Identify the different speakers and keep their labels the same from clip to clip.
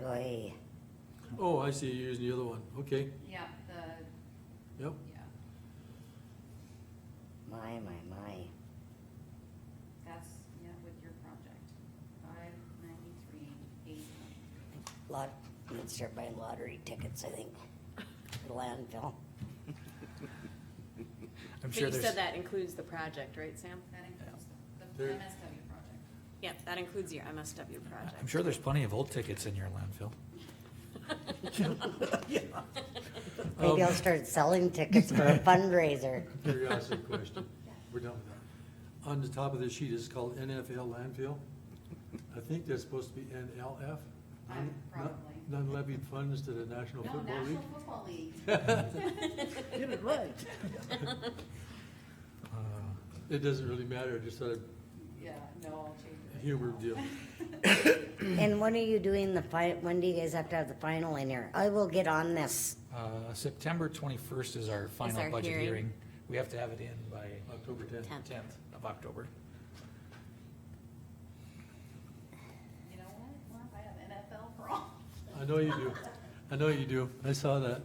Speaker 1: rồi
Speaker 2: Oh, I see, you're using the other one, okay,
Speaker 3: Yeah, the,
Speaker 2: yep,
Speaker 3: yeah,
Speaker 1: my my my
Speaker 3: that's, yeah, with your project, five ninety-three, eight twenty-three.
Speaker 1: lot needs to start buying lottery tickets I think for the landfill
Speaker 4: I'm
Speaker 5: But
Speaker 4: sure
Speaker 5: you
Speaker 4: there's,
Speaker 5: said that includes the project, right, Sam?
Speaker 3: That includes the, the
Speaker 2: There-
Speaker 3: MSW project.
Speaker 5: Yeah, that includes your MSW project.
Speaker 4: I'm sure there's plenty of old tickets in your landfill.
Speaker 1: maybe
Speaker 2: Um,
Speaker 1: I'll start selling tickets for a fundraiser
Speaker 2: curiosity question, we're done with that. On the top of the sheet is called NFL landfill, I think that's supposed to be NLF.
Speaker 3: Uh,
Speaker 2: non-
Speaker 3: probably.
Speaker 2: Non levied funds to the National
Speaker 3: No,
Speaker 2: Football
Speaker 3: National
Speaker 2: League.
Speaker 3: Football League.
Speaker 5: Get it right.
Speaker 4: Uh,
Speaker 2: It doesn't really matter, just sort of
Speaker 3: Yeah, no, I'll change it.
Speaker 2: humor deal.
Speaker 1: and when are you doing the fi- when do you guys have to have the final in here I will get on this
Speaker 4: Uh, September twenty-first is our final
Speaker 5: our
Speaker 4: budget
Speaker 5: hearing.
Speaker 4: hearing. We have to have it in by
Speaker 2: October tenth.
Speaker 5: Tenth.
Speaker 4: tenth of October.
Speaker 3: You know what, Well, I have NFL for all.
Speaker 2: I know you do, I know you do, I saw that.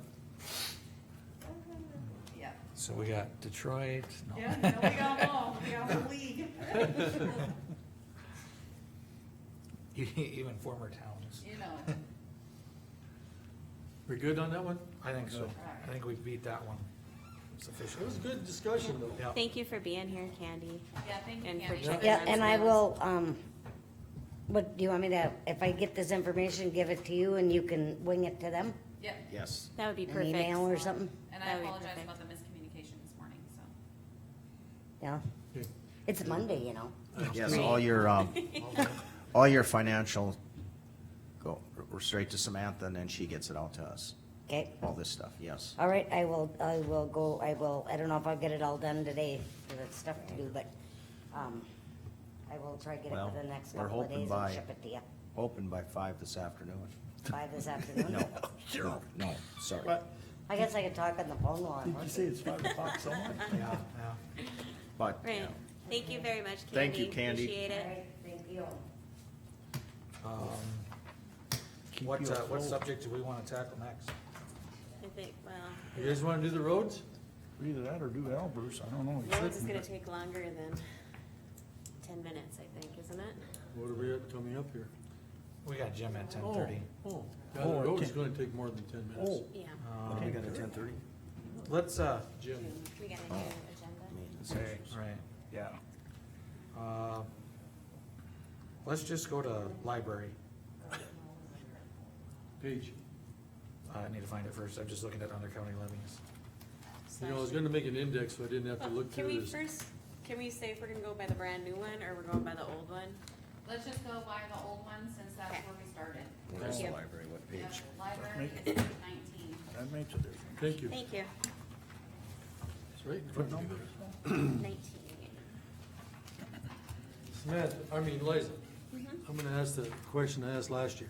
Speaker 3: Yeah.
Speaker 4: So we got Detroit, no.
Speaker 3: Yeah, no, we got them all, we got the league.
Speaker 4: E-, Even former towns.
Speaker 3: You know, it.
Speaker 2: We're good on that one?
Speaker 4: I think so. I
Speaker 3: Alright.
Speaker 4: think we've beat that one sufficiently.
Speaker 2: It was a good discussion though.
Speaker 4: Yeah.
Speaker 5: Thank you for being here, Candy.
Speaker 3: yeah, thank you,
Speaker 5: And for
Speaker 3: Candy.
Speaker 5: checking
Speaker 1: yeah and I
Speaker 5: Understand.
Speaker 1: will um what do you want me to if I get this information give it to you and you can wing it to them
Speaker 3: Yeah.
Speaker 6: Yes.
Speaker 5: That would be
Speaker 1: an email
Speaker 5: perfect.
Speaker 1: or something
Speaker 3: And I
Speaker 5: That would be
Speaker 3: apologize
Speaker 5: perfect.
Speaker 3: about the miscommunication this morning, so.
Speaker 1: yeah
Speaker 2: Okay.
Speaker 1: it's Monday you know
Speaker 6: Yes, all your, um, all your financial go, we're straight to Samantha and then she gets it out to us,
Speaker 1: okay
Speaker 6: all this stuff, yes.
Speaker 1: All right, I will, I will go, I will, I don't know if I'll get it all done today, because it's stuff to do, but, um, I will try to get it
Speaker 6: Well,
Speaker 1: for the next
Speaker 6: we're
Speaker 1: couple of
Speaker 6: hoping
Speaker 1: days and
Speaker 6: by-
Speaker 1: ship it to you
Speaker 6: Open by five this afternoon.
Speaker 1: by this afternoon.
Speaker 6: No, no, no, sorry.
Speaker 7: But
Speaker 1: I guess I could talk on the phone while I'm
Speaker 7: did you
Speaker 1: working.
Speaker 7: say it's five o'clock somewhere?
Speaker 5: Uh-huh.
Speaker 4: Yeah, yeah.
Speaker 6: But, you
Speaker 5: Right.
Speaker 6: know,
Speaker 5: Thank you very much, Candy.
Speaker 6: Thank you, Candy.
Speaker 5: Appreciate
Speaker 1: All
Speaker 5: it.
Speaker 1: right, thank you.
Speaker 4: Um,
Speaker 7: Keep
Speaker 4: What,
Speaker 7: you
Speaker 4: uh, what
Speaker 7: afloat.
Speaker 4: subject do we wanna tackle next?
Speaker 5: I think, well,
Speaker 2: You guys wanna do the roads?
Speaker 7: Either that or do Albers, I don't know.
Speaker 5: Rhodes is gonna take longer than ten minutes, I think, isn't it?
Speaker 2: What are we at coming up here?
Speaker 4: We got Jim at ten thirty.
Speaker 2: Oh, oh. Yeah, the
Speaker 7: Oh,
Speaker 2: road is
Speaker 7: ten-
Speaker 2: gonna take more than ten minutes.
Speaker 7: Oh,
Speaker 5: Yeah.
Speaker 2: Uh,
Speaker 4: Um,
Speaker 7: we got a ten thirty?
Speaker 4: Let's, uh,
Speaker 2: Jim,
Speaker 5: We got a new agenda.
Speaker 6: maintenance
Speaker 4: Right,
Speaker 6: issues.
Speaker 4: right, yeah. Uh, Let's just go to library.
Speaker 2: Paige,
Speaker 4: I need to find it first, I'm just looking at under county levies.
Speaker 2: you know, I was gonna make an index, so I didn't have to look
Speaker 5: Oh, Can
Speaker 2: through
Speaker 5: we
Speaker 2: this.
Speaker 5: first, can we say if we're gonna go by the brand new one or we're going by the old one?
Speaker 3: Let's just go by the old one since that's
Speaker 5: Okay.
Speaker 3: where we started.
Speaker 6: Where's the
Speaker 5: Yeah.
Speaker 6: library, what
Speaker 3: Yeah,
Speaker 6: page?
Speaker 3: Library is page nineteen.
Speaker 7: That makes a difference.
Speaker 2: Thank you.
Speaker 5: Thank you.
Speaker 2: It's right in front of you there.
Speaker 5: Nineteen.
Speaker 2: Samantha, I mean Liza,
Speaker 5: Mm-hmm.
Speaker 2: I'm gonna ask the question I asked last year.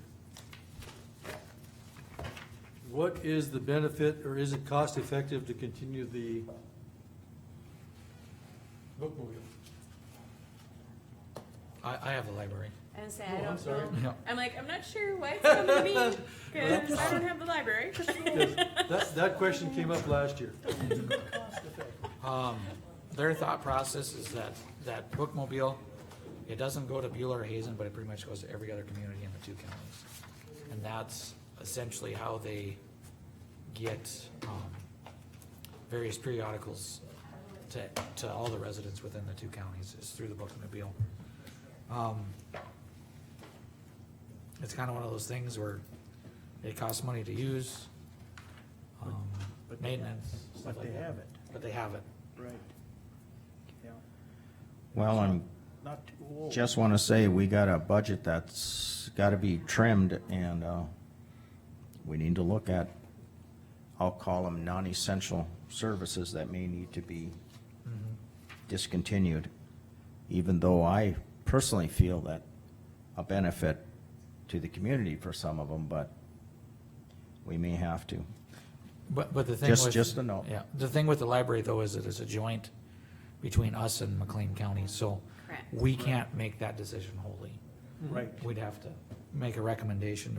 Speaker 2: What is the benefit, or is it cost effective to continue the bookmobile?
Speaker 4: I, I have the library.
Speaker 5: I was gonna
Speaker 2: Oh,
Speaker 5: say, I
Speaker 2: I'm
Speaker 5: don't
Speaker 2: sorry.
Speaker 4: Yeah.
Speaker 5: know. I'm like, I'm not sure why it's coming to me, cause I don't have the library.
Speaker 2: That, that question came up last year.
Speaker 4: Um, their thought process is that, that bookmobile, it doesn't go to Bueller or Hazen, but it pretty much goes to every other community in the two counties. And that's essentially how they get, um, various periodicals to, to all the residents within the two counties is through the bookmobile. Um, It's kinda one of those things where it costs money to use, um,
Speaker 7: But- but they-
Speaker 4: maintenance, stuff
Speaker 7: But
Speaker 4: like
Speaker 7: they
Speaker 4: that.
Speaker 7: have it.
Speaker 4: But they have it.
Speaker 7: Right. Yeah,
Speaker 6: Well, I'm,
Speaker 7: not too old.
Speaker 6: just wanna say, we got a budget that's gotta be trimmed and, uh, we need to look at, I'll call them non-essential services that may need to be discontinued, even though I personally feel that a benefit to the community for some of them, but we may have to.
Speaker 4: But, but the thing
Speaker 6: Just-
Speaker 4: with-
Speaker 6: just a note.
Speaker 4: Yeah, the thing with the library though is it is a joint between us and McLean County, so
Speaker 5: Correct.
Speaker 4: we can't make that decision wholly.
Speaker 7: Right.
Speaker 4: We'd have to make a recommendation